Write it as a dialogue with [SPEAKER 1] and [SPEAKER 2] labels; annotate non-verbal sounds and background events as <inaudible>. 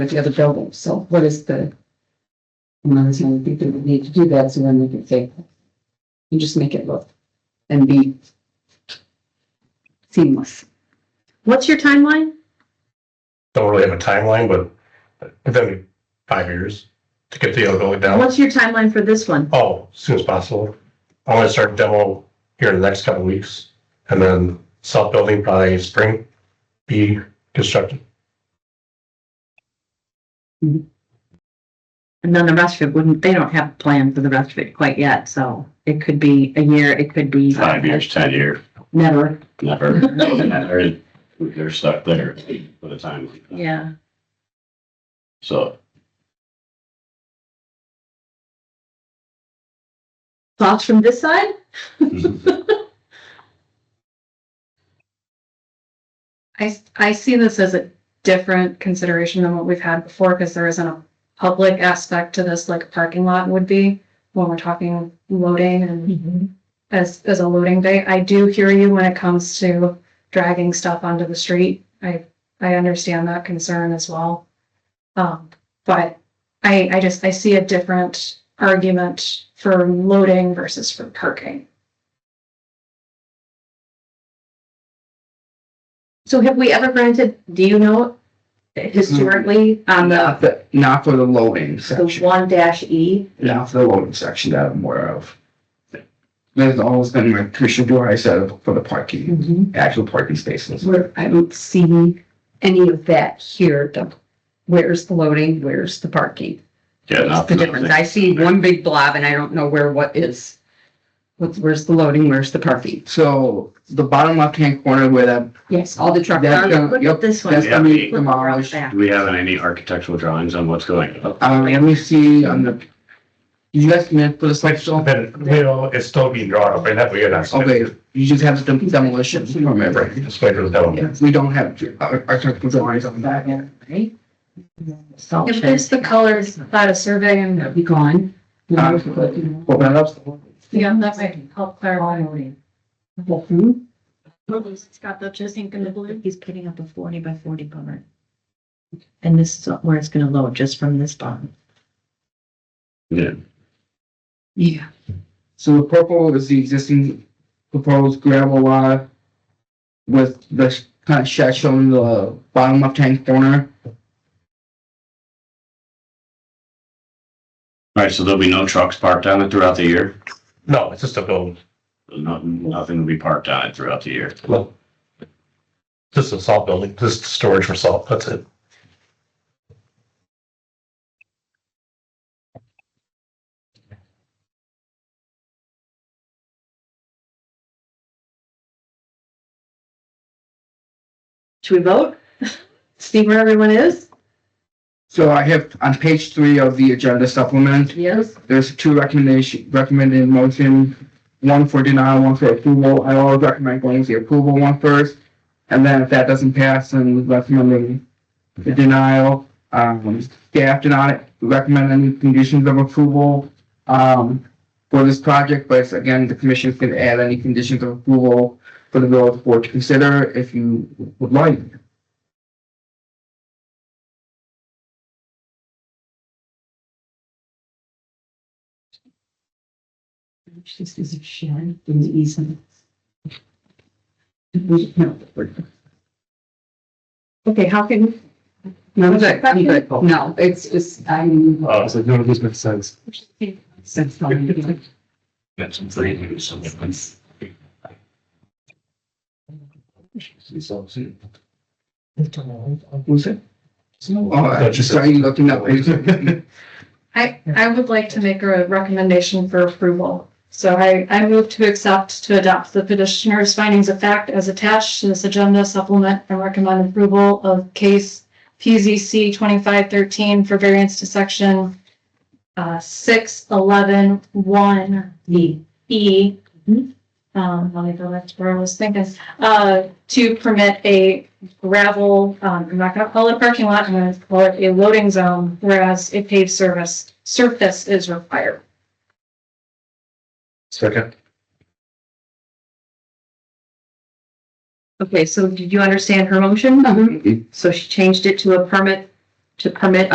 [SPEAKER 1] with the other building, so what is the? And I was gonna think that we need to do that, so then we can say, you just make it look and be seamless.
[SPEAKER 2] What's your timeline?
[SPEAKER 3] don't really have a timeline, but within five years to get the other building
[SPEAKER 4] Uh,
[SPEAKER 3] down.
[SPEAKER 2] What's your timeline for this one?
[SPEAKER 3] Oh, as soon as possible. I want to start demo here in the next couple of weeks and then south building probably spring be constructed.
[SPEAKER 2] And then the rest of it wouldn't, they don't have a plan for the rest of it quite yet, so it could be a year, it could be
[SPEAKER 4] five years, ten year,
[SPEAKER 2] never,
[SPEAKER 4] never, never. They're stuck there for the time. like that.
[SPEAKER 2] yeah.
[SPEAKER 4] <laughs> So
[SPEAKER 2] Thoughts from this side?
[SPEAKER 5] I, I see this as a different consideration than what we've had before, because there isn't a public aspect to this, like a parking lot would be, when we're talking loading and
[SPEAKER 1] Mm-hmm.
[SPEAKER 5] as, as a loading bay. I do hear you when it comes to dragging stuff onto the street. I, I understand that concern as well. Um, but I, I just, I see a different argument for loading versus for parking.
[SPEAKER 2] So have we ever granted, do you know historically on the,
[SPEAKER 6] Not the, not for the loading
[SPEAKER 2] the
[SPEAKER 6] section,
[SPEAKER 2] one dash E?
[SPEAKER 6] not for the loading section that I'm aware of. There's always been, like Commissioner Dwyer said, for the parking, actual parking spaces.
[SPEAKER 1] Where I don't see any of that here, the, where's the loading, where's the parking?
[SPEAKER 4] yeah,
[SPEAKER 1] What's
[SPEAKER 4] not
[SPEAKER 1] the difference? I see one big blob and I don't know where what is. What's, where's the loading, where's the parking?
[SPEAKER 6] So the bottom left-hand corner where that,
[SPEAKER 1] Yes, all the truck.
[SPEAKER 6] That's
[SPEAKER 1] drivers.
[SPEAKER 6] gonna-
[SPEAKER 2] Look
[SPEAKER 6] yep,
[SPEAKER 2] at this one.
[SPEAKER 6] that's
[SPEAKER 4] Yeah.
[SPEAKER 6] gonna be
[SPEAKER 2] Look around
[SPEAKER 6] demolished.
[SPEAKER 2] back.
[SPEAKER 4] Do we have any architectural drawings on what's going on?
[SPEAKER 6] Uh, let me see on the, you guys meant for the
[SPEAKER 3] Like,
[SPEAKER 6] section,
[SPEAKER 3] then, you know, it's still being drawn up right now. We get that.
[SPEAKER 6] okay, you just have the demolition, remember?
[SPEAKER 3] Right, just wait for the demo.
[SPEAKER 6] Yeah, We don't have uh, ar- architectural drawings on that.
[SPEAKER 1] Right? Salt
[SPEAKER 5] If it's the
[SPEAKER 1] shed.
[SPEAKER 5] colors, not a survey and,
[SPEAKER 1] Be gone. Um,
[SPEAKER 6] Uh, Open it up.
[SPEAKER 5] yeah, that might help clarify.
[SPEAKER 2] It's got the pink and the blue.
[SPEAKER 7] He's putting up a forty by forty barn. And this is where it's gonna load, just from this barn.
[SPEAKER 4] Yeah,
[SPEAKER 1] Yeah.
[SPEAKER 6] So the purple is the existing proposed gravel lot with the kind of shed shown in the bottom left-hand corner.
[SPEAKER 4] all right, so there'll be no trucks parked on it throughout the year?
[SPEAKER 3] No, it's just a building.
[SPEAKER 4] Nothing, nothing will be parked on it throughout the year.
[SPEAKER 3] Well, Just a salt building, just storage for salt. That's it.
[SPEAKER 2] Should we
[SPEAKER 1] <laughs>
[SPEAKER 2] vote? See where everyone is?
[SPEAKER 6] So I have on page three of the agenda supplement,
[SPEAKER 2] Yes.
[SPEAKER 6] there's two recommendation, recommended motion, one for denial, one for approval. I always recommend going with the approval one first. And then if that doesn't pass, then recommending the denial. Um, staff did not recommend any conditions of approval, um, for this project, but it's, again, the commission can add any conditions of approval for the village board to consider if you would like.
[SPEAKER 1] Just as a shed in the easement. We- No, we're-
[SPEAKER 2] Okay, how can,
[SPEAKER 1] no, I'm good, I'm good. No, it's just, I'm.
[SPEAKER 3] Uh,
[SPEAKER 1] so none of this makes sense. Sense.
[SPEAKER 4] That's three.
[SPEAKER 6] Who's it? Oh, I just saw you looking up. <laughs>
[SPEAKER 5] I, I would like to make a recommendation for approval. So I, I move to accept to adopt the petitioner's findings of fact as attached to this agenda supplement and recommend approval of case PZC twenty-five thirteen for variance to section uh, six eleven one E. E. Um, let me go back to where I was thinking, uh, to permit a gravel, um, I'm not gonna call it a parking lot, I'm gonna call it a loading zone, whereas a paved service, surface is required.
[SPEAKER 3] Second.
[SPEAKER 2] okay, so did you understand her motion? So she changed it to a permit
[SPEAKER 1] to permit